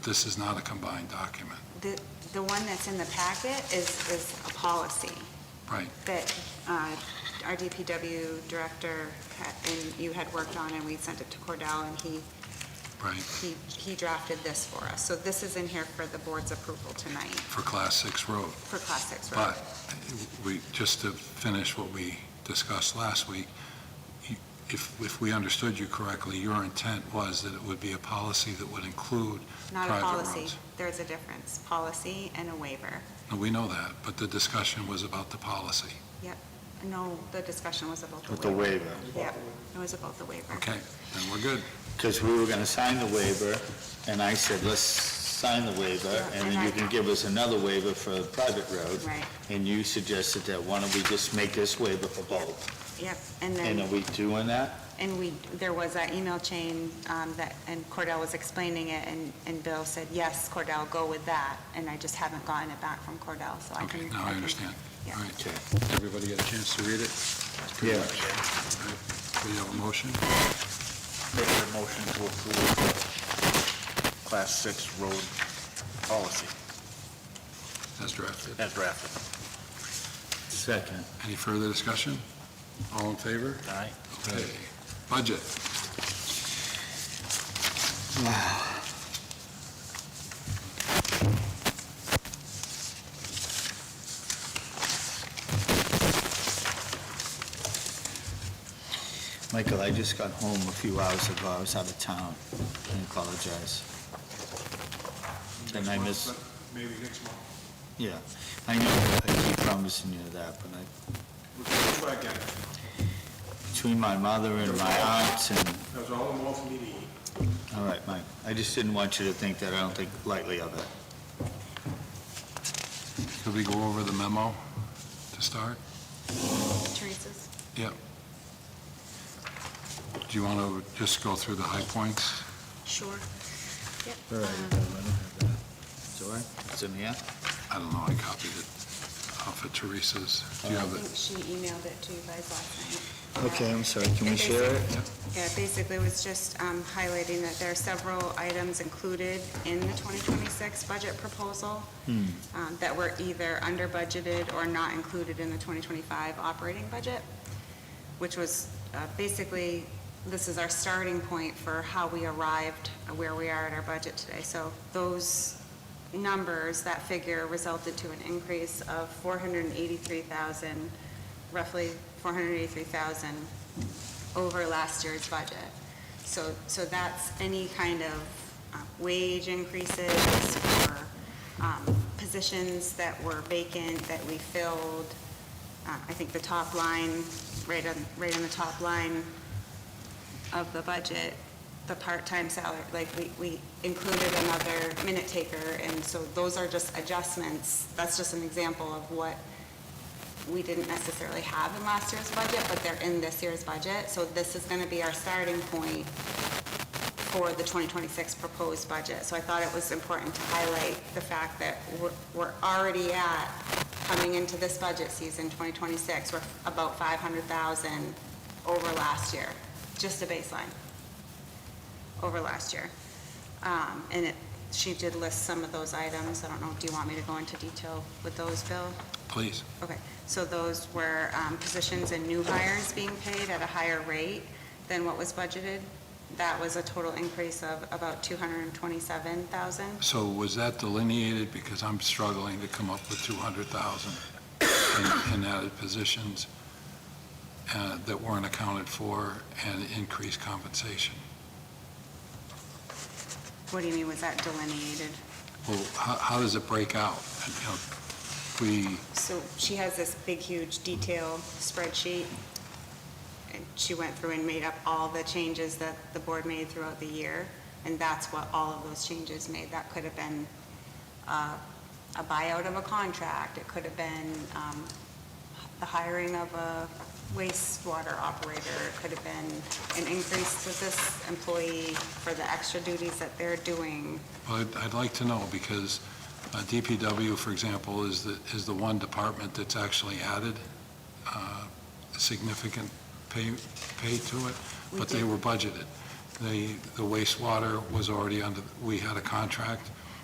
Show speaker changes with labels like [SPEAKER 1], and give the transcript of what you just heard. [SPEAKER 1] This is not a combined document.
[SPEAKER 2] The, the one that's in the packet is, is a policy.
[SPEAKER 1] Right.
[SPEAKER 2] That uh, our DPW director had- and you had worked on, and we sent it to Cordell, and he,
[SPEAKER 1] Right,
[SPEAKER 2] he, he drafted this for us. So this is in here for the board's approval tonight
[SPEAKER 1] for Class 6 road.
[SPEAKER 2] for Class 6 road.
[SPEAKER 1] But we, just to finish what we discussed last week, you- if, if we understood you correctly, your intent was that it would be a policy that would include,
[SPEAKER 2] Not a
[SPEAKER 1] private
[SPEAKER 2] policy.
[SPEAKER 1] roads.
[SPEAKER 2] There's a difference, policy and a waiver.
[SPEAKER 1] and we know that, but the discussion was about the policy.
[SPEAKER 2] No, the discussion was about the
[SPEAKER 3] With the
[SPEAKER 2] waiver.
[SPEAKER 3] waiver,
[SPEAKER 2] Yeah, it was about the waiver.
[SPEAKER 1] Okay, then we're good.
[SPEAKER 3] because we were going to sign the waiver, and I said, let's sign the waiver, and then you can give us another waiver for a private road,
[SPEAKER 2] Right,
[SPEAKER 3] and you suggested that, why don't we just make this waiver for both?
[SPEAKER 2] yep. And then.
[SPEAKER 3] And are we doing that?
[SPEAKER 2] And we, there was that email chain um, that, and Cordell was explaining it, and, and Bill said, yes, Cordell, go with that, and I just haven't gotten it back from Cordell, so I can.
[SPEAKER 1] Okay, now I
[SPEAKER 2] can-
[SPEAKER 1] understand.
[SPEAKER 2] yeah.
[SPEAKER 1] All right, everybody got a chance to read it?
[SPEAKER 3] Yeah.
[SPEAKER 1] We have a motion?
[SPEAKER 4] Make a motion to approve Class 6 road policy
[SPEAKER 1] As drafted.
[SPEAKER 4] as drafted.
[SPEAKER 3] Second.
[SPEAKER 1] Any further discussion? All in favor?
[SPEAKER 4] Aye.
[SPEAKER 1] Okay. Budget.
[SPEAKER 3] Michael, I just got home a few hours ago, I was out of town, I apologize. And I miss-
[SPEAKER 5] Maybe next month.
[SPEAKER 3] Yeah, I know, I keep promising you that, but I,
[SPEAKER 5] We'll try again.
[SPEAKER 3] between my mother and my aunts and
[SPEAKER 5] That was all the more for me to eat.
[SPEAKER 3] All right, Mike, I just didn't want you to think that, I don't think lightly of it.
[SPEAKER 1] Could we go over the memo to start?
[SPEAKER 2] Teresa's?
[SPEAKER 1] Do you want to just go through the high points?
[SPEAKER 2] Sure. Yep.
[SPEAKER 3] Sorry? It's in here?
[SPEAKER 1] I don't know, I copied it off of Teresa's. Do you
[SPEAKER 2] I
[SPEAKER 1] have
[SPEAKER 2] think
[SPEAKER 1] it?
[SPEAKER 2] she emailed it to you guys last night.
[SPEAKER 3] Okay, I'm sorry, can we share it?
[SPEAKER 2] Yeah, basically it was just um, highlighting that there are several items included in the 2026 budget proposal
[SPEAKER 3] Hmm.
[SPEAKER 2] um, that were either under budgeted or not included in the 2025 operating budget, which was uh, basically, this is our starting point for how we arrived, at where we are at our budget today. So those numbers, that figure resulted to an increase of 483,000, roughly 483,000 over last year's budget. So, so that's any kind of uh, wage increases or um, positions that were vacant that we filled. Uh, I think the top line, right on, right on the top line of the budget, the part-time salary, like, we, we included another minute taker, and so those are just adjustments. That's just an example of what we didn't necessarily have in last year's budget, but they're in this year's budget. So this is going to be our starting point for the 2026 proposed budget. So I thought it was important to highlight the fact that we're- we're already at, coming into this budget season, 2026, we're about 500,000 over last year, just a baseline, over last year. Um, And it, she did list some of those items. I don't know, do you want me to go into detail with those, Bill?
[SPEAKER 1] Please.
[SPEAKER 2] Okay, so those were um, positions and new hires being paid at a higher rate than what was budgeted. That was a total increase of about 227,000.
[SPEAKER 1] So was that delineated? Because I'm struggling to come up with 200,000 in- in added positions uh, that weren't accounted for and increased compensation.
[SPEAKER 2] What do you mean, was that delineated?
[SPEAKER 1] Well, how, how does it break out? And, you know, We,
[SPEAKER 2] So she has this big, huge detail spreadsheet, and she went through and made up all the changes that the board made throughout the year, and that's what all of those changes made. That could have been uh, a buyout of a contract, it could have been um, the hiring of a wastewater operator, it could have been an increase to this employee for the extra duties that they're doing.
[SPEAKER 1] well, I'd, I'd like to know because uh, DPW, for example, is the, is the one department that's actually added uh, significant pay, pay to it,
[SPEAKER 2] We
[SPEAKER 1] but they
[SPEAKER 2] did-
[SPEAKER 1] were budgeted. The the wastewater was already under, we had a contract,